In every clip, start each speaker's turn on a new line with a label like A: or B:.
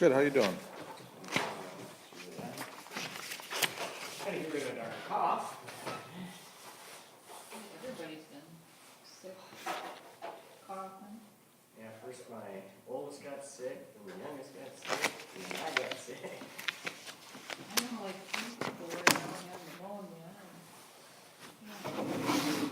A: Good, how you doing?
B: Gotta get rid of our cough.
C: Everybody's been sick, coughing.
B: Yeah, first my oldest got sick, then my youngest got sick, then I got sick.
C: I know, like, these people right now have pneumonia. and- yeah.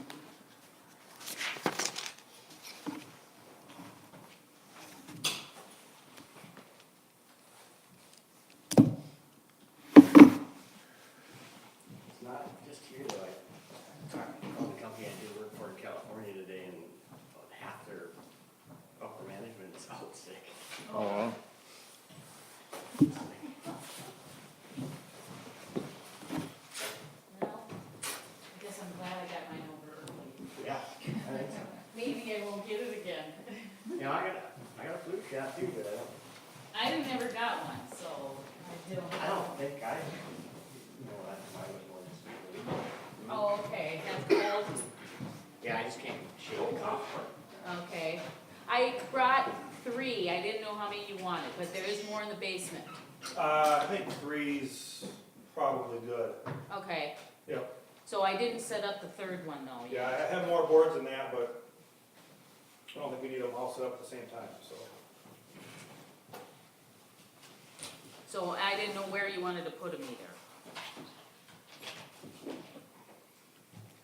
B: It's not just here though, I talked to the company I do work for in California today and about half their upper management is out sick.
A: Oh, well.
C: Well, I guess I'm glad I got mine over early.
B: Yeah, I think so.
C: Maybe I won't get it again.
B: You know, I got, I got a flu shot too, but I don't,
C: I never got one, so I don't.
B: I don't think I, no, I, I was born this week.
C: Oh, okay, that's cold,
B: Yeah, I just can't shake the cough.
C: okay. I brought three, I didn't know how many you wanted, but there is more in the basement.
D: Uh, I think three's probably good.
C: Okay,
D: Yep.
C: so I didn't set up the third one though yet.
D: Yeah, I have more boards than that, but I don't think we need them all set up at the same time, so.
C: So I didn't know where you wanted to put them either.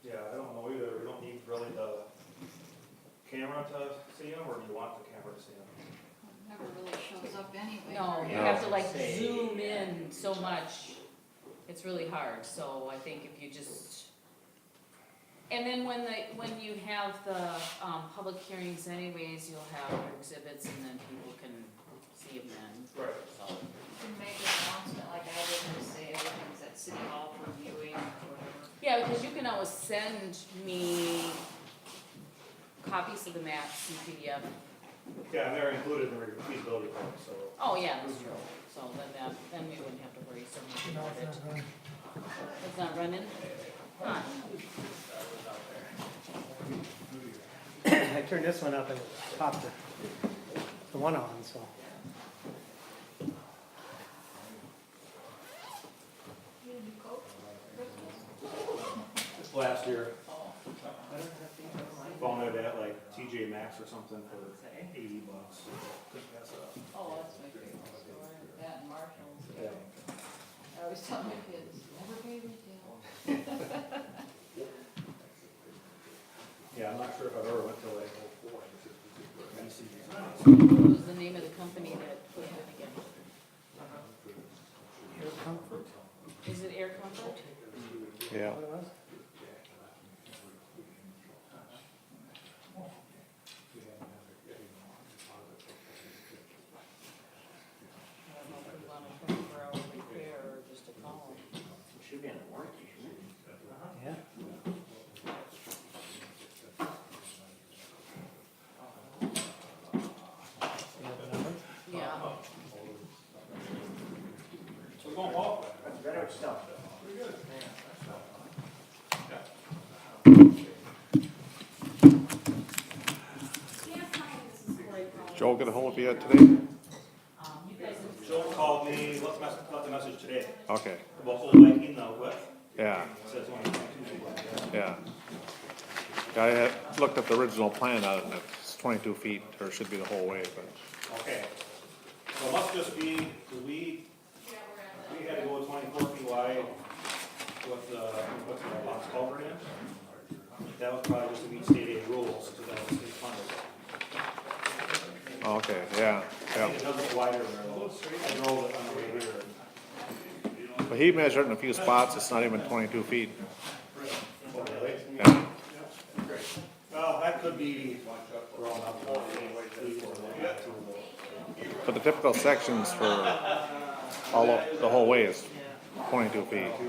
D: Yeah, I don't know either. We don't need really the camera to see them, or do you want the camera to see them?
E: Never really shows up anyway.
C: No, you
B: Yeah.
C: have to like
B: Say-
C: zoom in so much, it's really hard, so I think if you just. And then when the, when you have the, um, public hearings anyways, you'll have your exhibits and then people can see them then,
D: Right.
C: so.
E: You can make an announcement like I did and say everything's at City Hall for viewing or whatever.
C: Yeah, because you can always send me copies of the maps in PDF,
D: Yeah, and they're included in the repeatability plan, so.
C: oh yeah, that's true, so then that, then we wouldn't have to worry so much about it. It's not running? Huh.
F: I turned this one up and popped the, the one on, so.
D: This last year,
B: I don't have things online.
D: found it at like TJ Maxx or something for eighty bucks. Couldn't pass it up.
E: Oh, that's my favorite store, that and Marshall's. I always tell my kids, never pay retail.
D: Yeah, I'm not sure if I've ever went to like. VCs or something.
C: What was the name of the company that put it in again?
F: Air comfort,
C: Is it Air Comfort?
A: Yeah,
F: what it was?
C: I don't know if we want a twenty-four hour repair or just a call.
B: Should be under warranty, shouldn't it?
F: Yeah. You have the number?
C: Yeah,
D: We're going well.
B: That's better stuff.
A: Joel get a hold of you today?
C: um, you guys have
D: Joel called me, left mess left a message today,
A: Okay,
D: about old liking the what,
A: yeah,
D: says one twenty-two.
A: yeah. I had looked at the original plan on it, it's twenty-two feet, or it should be the whole way, but,
D: Okay, so it must just be, 'cause we, we had to go twenty-four feet wide uh, with, uh, what's that box culvert in? That was probably just to meet state aid rules, so that was state funded.
A: okay,
D: I
A: yeah, yeah.
D: think it does look wider than those, I drove it on the way here.
A: But he measured in a few spots, it's not even twenty-two feet,
D: Oh, really?
A: yeah.
D: Well, that could be wrong up there anyway, too, or like that too.
A: But the typical sections for all, of- the whole way is twenty-two feet.